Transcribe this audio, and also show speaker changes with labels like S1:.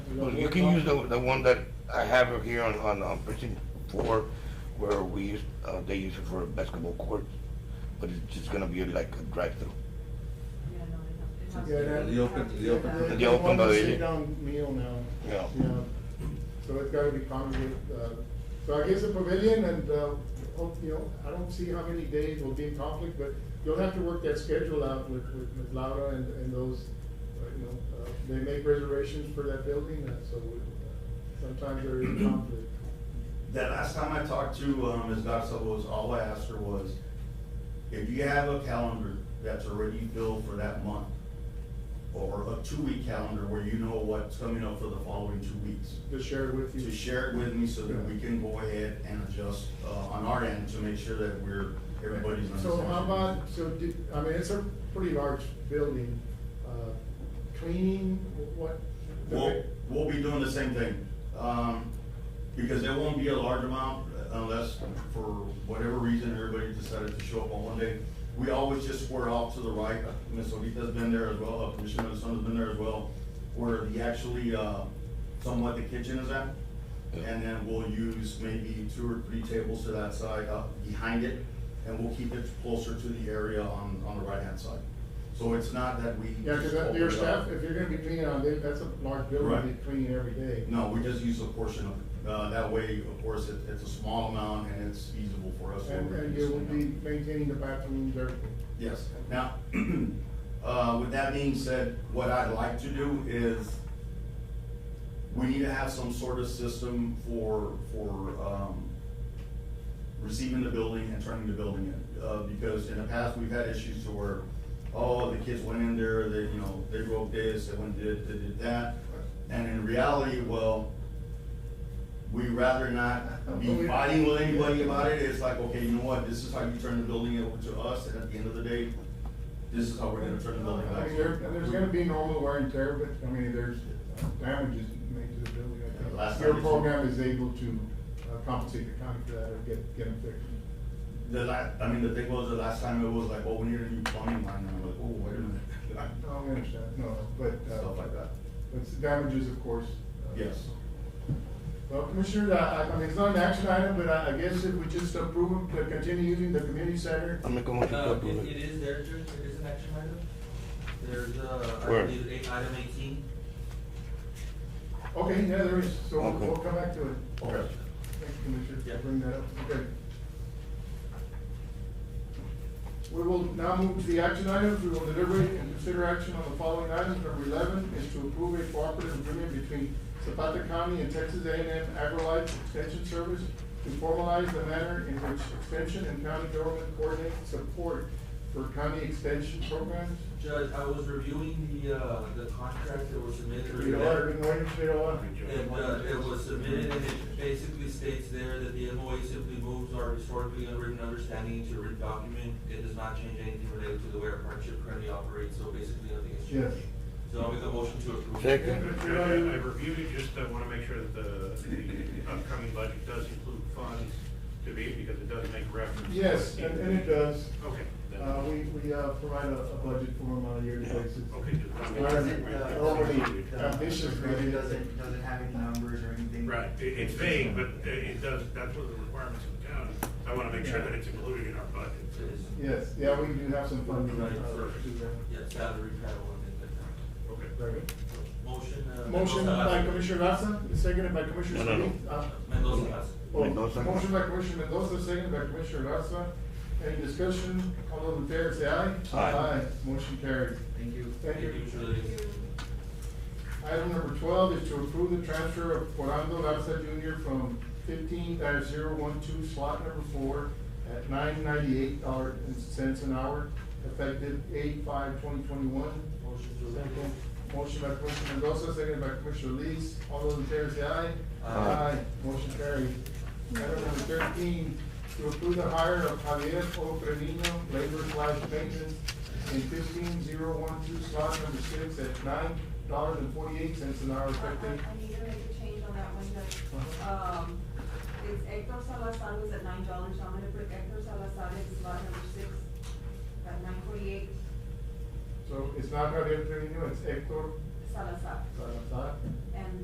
S1: Well, You can use the, the one that I have it here on, on, on precinct four, where we use, uh, they use it for basketball courts, but it's just gonna be like a drive-through.
S2: Yeah, that-
S3: The open- the open-
S2: They-
S3: The
S2: they
S1: open
S2: want to
S1: pavilion.
S2: sit-down meal now.
S1: Yeah.
S2: So it's gotta be common with, uh, so I guess the pavilion and, uh, hope, you know, I don't see how many days will be in conflict, but you'll have to work that schedule out with, with Ms. Laura and, and those, uh, you know, uh, they make reservations for that building, and so uh, sometimes there is a conflict.
S4: The last time I talked to, um, Ms. Goxel was, all I asked her was, if you have a calendar that's already filled for that month, or a two-week calendar where you know what's coming up for the following two weeks,
S2: To share it with you.
S4: to share it with me so that we can go ahead and adjust, uh, on our end to make sure that we're, everybody's on the same.
S2: So how about,
S4: page.
S2: so did, I mean, it's a pretty large building, uh, cleaning, what?
S4: We'll, we'll be doing the same thing, um, because there won't be a large amount unless for whatever reason everybody decided to show up on one day. We always just square off to the right, Ms. Olita's been there as well, uh, Commissioner Alessandro's been there as well, where the actually, uh, somewhat the kitchen is at. And then we'll use maybe two or three tables to that side, uh, behind it, and we'll keep it closer to the area on, on the right-hand side. So it's not that we.
S2: Yeah, cause
S4: just
S2: that, your
S4: open it up.
S2: staff, if you're gonna be cleaning on day, that's a large building,
S4: Right.
S2: you clean every day.
S4: No, we just use a portion of it. Uh, that way, of course, it, it's a small amount and it's feasible for us. to
S2: And, and
S4: reduce
S2: you
S4: the
S2: will be
S4: amount.
S2: maintaining the bathrooms, everything.
S4: Yes. Now, uh, with that being said, what I'd like to do is we need to have some sort of system for, for, um, receiving the building and turning the building in. Uh, because in the past, we've had issues to where, oh, the kids went in there, they, you know, they broke this, they went did, they did that. And in reality, well, we rather not be fighting with anybody about it. It's like, okay, you know what, this is how you turn the building over to us, and at the end of the day, this is how we're gonna turn the building
S2: I
S4: back.
S2: mean, there, there's gonna be normal wear and tear, but, I mean, there's damages made to the building. I think.
S4: Last time
S2: Your
S4: we-
S2: program is able to uh, compensate the county for that or get, get them fixed.
S4: The la, I mean, the thing was, the last time it was like, oh, we need a new plumbing line, and I'm like, oh, wait a minute.
S2: No, I understand, no, but,
S4: Stuff
S2: uh,
S4: like that,
S2: it's damages, of course. uh,
S4: yes.
S2: Well, Commissioner, I, I mean, it's not an action item, but I, I guess if we just approve them to continue using the community center,
S1: I make a motion to
S5: No, it,
S1: approve
S5: it
S1: it.
S5: is there, Judge, it is an action item. There's, uh, I
S1: Where?
S5: believe, eight- item eighteen.
S2: okay, yeah, there is, so we'll,
S1: Okay.
S2: we'll come back to it.
S4: Okay.
S2: Thank you, Commissioner,
S5: Yeah.
S2: for bringing that up, okay. We will now move to the action items, we will deliberate and consider action on the following items, number eleven is to approve a cooperative agreement between Zapata County and Texas A and M AgriLife Extension Service to formalize the manner in which extension and county government coordinate support for county extension programs.
S5: Judge, I was reviewing the, uh, the contract that was submitted.
S2: Read all, good morning, read all.
S5: And, uh, it was submitted and it basically states there that the MOA simply moves our historically unwritten understanding to a written document. It does not change anything related to the way our partnership currently operates, so basically nothing has
S2: Yes.
S5: changed. So I'll make a motion to approve.
S1: Second.
S6: I I reviewed it, just I want to make sure that the the upcoming budget does include funds to be, because it does make reference. to
S2: Yes,
S6: it.
S2: and, and it does,
S6: Okay. then-
S2: uh, we, we, uh, provide a, a budget for them on a yearly basis.
S6: Okay. just-
S5: uh,
S2: Where normally ambitious
S7: uh, It
S2: really
S7: doesn't, doesn't have any numbers or anything.
S6: Right, it, it's vague, but uh, it does, that's one of the requirements of the county. I want to make sure that it's included in our budget.
S5: It is,
S2: Yes, yeah, we do have some funding. uh,
S5: Right,
S2: to
S6: perfect.
S2: do
S5: yeah, salary panel and things like
S6: Okay.
S2: that. Very good.
S5: that. Motion, uh.
S2: Motion
S5: Mendoza.
S2: by Commissioner Garza, seconded by Commissioner
S1: No, no, no.
S2: Solis. Uh,
S5: Mendoza, yes.
S2: oh,
S1: Mendoza.
S2: Motion by Commissioner Mendoza, seconded by Commissioner Garza. Any discussion? All those in favor say aye.
S1: Aye.
S2: Motion carries.
S7: Thank you.
S2: Thank you.
S5: Thank you, Judge.
S2: Item number twelve is to approve the transfer of Orlando Garza Junior from fifteen 12 slot number four at nine ninety-eight dollars and cents an hour, effective eight five twenty twenty-one.
S5: Motion to approve.
S2: Second. Motion by Commissioner Mendoza, second by Commissioner Solis. All those in favor say aye.
S5: Aye.
S2: Motion carried. Item number thirteen, to approve the hire of Javier O. Trevino, labor slash maintenance, in fifteen zero one two slot number six at nine dollars and forty-eight cents an hour
S8: I
S2: effective.
S8: I need to make a change on that one, Judge. Um, it's Hector Salazar was at nine dollars, I'm gonna put Hector Salazar in lot number six, at nine forty-eight
S2: So it's uh, not Javier Trevino, it's Hector
S8: Salazar.
S2: Salazar.